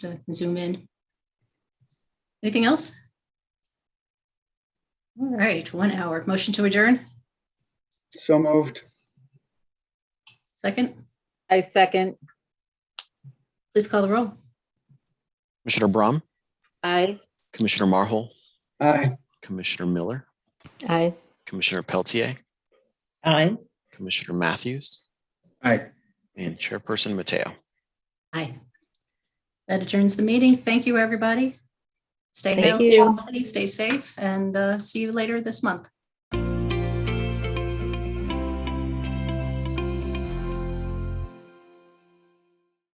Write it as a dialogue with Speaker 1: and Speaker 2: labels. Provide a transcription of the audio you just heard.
Speaker 1: to zoom in. Anything else? All right, one hour. Motion to adjourn.
Speaker 2: So moved.
Speaker 1: Second,
Speaker 3: I second.
Speaker 1: please call the roll.
Speaker 4: Commissioner Brahm,
Speaker 3: Aye.
Speaker 4: Commissioner Marhol,
Speaker 2: Aye.
Speaker 4: Commissioner Miller,
Speaker 3: Aye.
Speaker 4: Commissioner Peltier,
Speaker 3: Aye.
Speaker 4: Commissioner Matthews,
Speaker 2: Aye.
Speaker 4: and Chairperson Mateo.
Speaker 1: Aye. That adjourns the meeting. Thank you, everybody. Stay
Speaker 5: Thank
Speaker 1: healthy,
Speaker 5: you.
Speaker 1: stay safe, and uh, see you later this month.